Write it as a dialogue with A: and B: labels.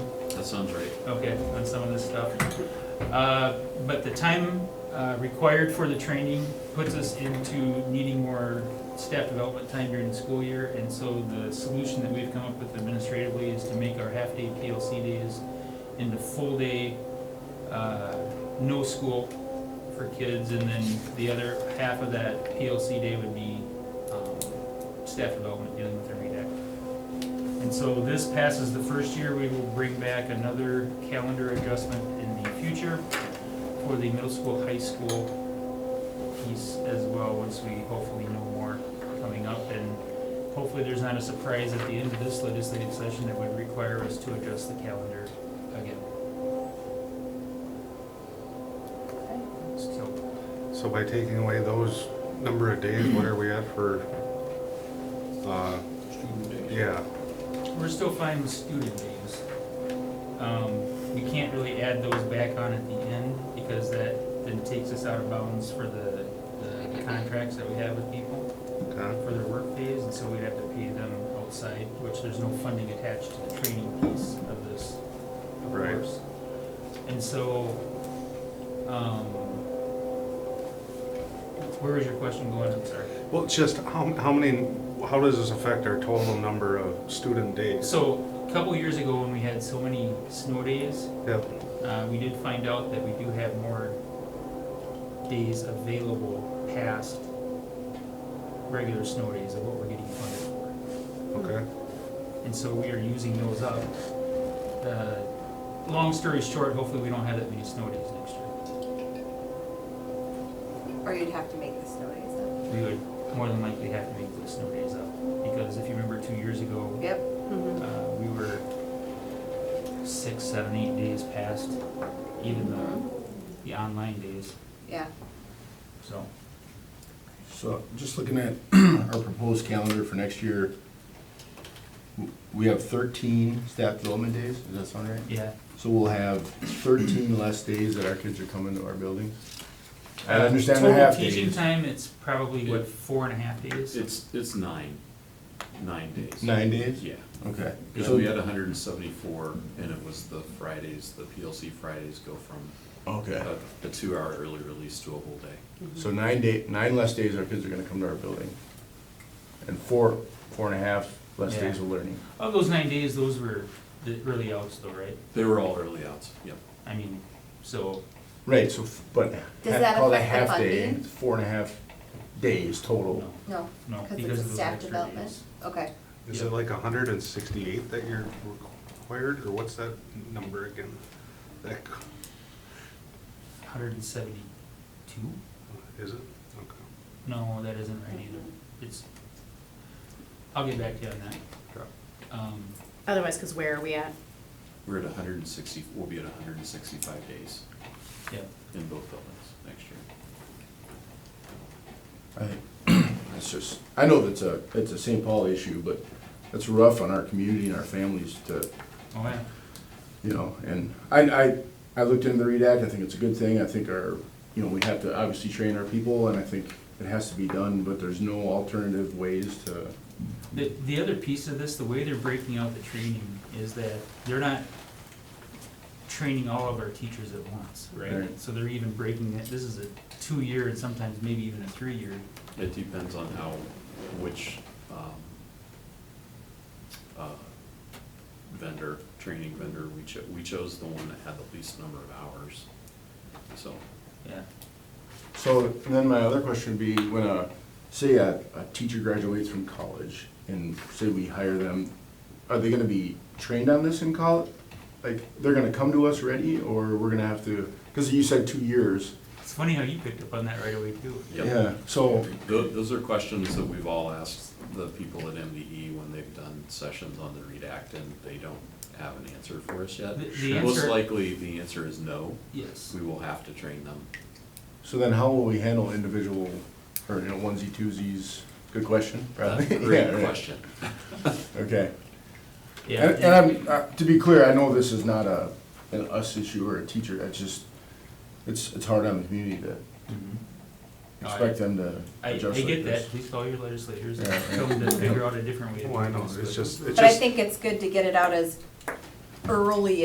A: that sounds right.
B: okay, on some of this stuff. Uh, But the time uh, required for the training puts us into needing more staff development time during the school year. And so the solution that we've come up with administratively is to make our half-day PLC days into full-day, uh, no school for kids. And then the other half of that PLC day would be um, staff development, dealing with every day. And so this passes the first year, we will bring back another calendar adjustment in the future for the middle school, high school piece as well, once we hopefully know more coming up. And hopefully there's not a surprise at the end of this legislative session that would require us to adjust the calendar again. So,
C: So by taking away those number of days, what are we at for, uh,
A: Student days.
C: yeah,
B: we're still fine with student days. Um, we can't really add those back on at the end, because that then takes us out of bounds for the, the contracts that we have with people
C: okay,
B: for their work days, and so we'd have to pay them outside, which there's no funding attached to the training piece of this, of
C: Right.
B: course. And so, um, where was your question going, I'm sorry?
C: well, it's just how, how many, how does this affect our total number of student days?
B: So, a couple years ago, when we had so many snow days,
C: Yep,
B: Uh, we did find out that we do have more days available past regular snow days of what we're getting funded for.
C: okay,
B: And so we are using those up. Uh, Long story short, hopefully we don't have that many snow days next year.
D: Or you'd have to make the snow days
B: We would more than likely have to make those snow days up, because if you remember two years ago,
D: up. Yep.
E: Mm-hmm.
B: uh, we were six, seven, eight days past even the, the online days,
D: Yeah.
B: so.
F: So just looking at our proposed calendar for next year, w- we have thirteen staff development days, does that sound right?
B: Yeah,
F: So we'll have thirteen less days that our kids are coming to our building. I
B: Uh,
F: understand the half
B: Total teaching
F: days.
B: time, it's probably what, four and a half days?
A: It's, it's nine, nine days.
F: Nine days?
A: Yeah,
F: Okay.
A: because
F: So-
A: we had hundred and seventy-four, and it was the Fridays, the PLC Fridays go from
F: Okay.
A: a, a two-hour early release to a whole day.
F: Uh, So nine day, nine less days our kids are gonna come to our building. And four, four and a half less
B: Yeah.
F: days of learning.
B: Of those nine days, those were the early outs though, right?
A: They were all early outs, yep.
B: I mean, so,
F: Right, so, f- but.
D: Does
F: ha-
D: that
F: call
D: affect the
F: half day,
D: funding?
F: it's Four and a half days total.
B: no,
D: No.
B: no,
D: it's
B: because
D: a
B: of those
D: staff
B: extra
D: development.
B: days.
D: Okay.
C: is it like hundred and sixty-eight that you're required, or what's that number again? That, c-
B: Hundred and seventy-two?
C: is it? Okay.
B: No, that isn't right either. It's, I'll get back to you on that. Um,
E: Otherwise, because where are we at?
A: We're at hundred and sixty, we'll be at hundred and sixty-five days
B: yeah,
A: in both buildings next year.
F: I, it's just, I know that's a, it's a St. Paul issue, but it's rough on our community and our families to,
B: oh, yeah,
F: you know, and I, I, I looked into the READ Act, I think it's a good thing, I think our, you know, we have to obviously train our people, and I think it has to be done, but there's no alternative ways to,
B: The, the other piece of this, the way they're breaking out the training is that they're not training all of our teachers at once, right?
F: Right.
B: So they're even breaking it, this is a two-year and sometimes maybe even a three-year.
A: It depends on how, which um, uh, vendor, training vendor, we chose, we chose the one that had the least number of hours. So,
B: Yeah.
F: So then my other question would be, when a, say a, a teacher graduates from college and say we hire them, are they gonna be trained on this in college? Like, they're gonna come to us ready or we're gonna have to, cause you said two years.
B: It's funny how you picked up on that right away too.
A: Yep.
F: Yeah, so,
A: tho- those are questions that we've all asked the people at MDE when they've done sessions on the READ Act, and they don't have an answer for us yet.
B: The- the
A: Most
B: answer-
A: likely, the answer is no,
B: Yes.
A: we will have to train them.
F: so then how will we handle individual, or, you know, onesie twosies? Good question,
A: That's
F: probably.
A: a
F: Yeah,
A: great
F: right.
A: question.
F: Okay.
B: Yeah.
F: And, and I'm, uh, to be clear, I know this is not a, an us issue or a teacher, it's just, it's, it's hard on the community to
B: Mhm.
F: expect them to
B: I, I
F: adjust like
B: get that,
F: this.
B: please call your legislators and
F: Yeah.
B: tell them to figure out a different way. to
C: Well, I
B: do
C: know,
B: this,
C: it's
B: but-
C: just, it's just.
D: But I think it's good to get it out as early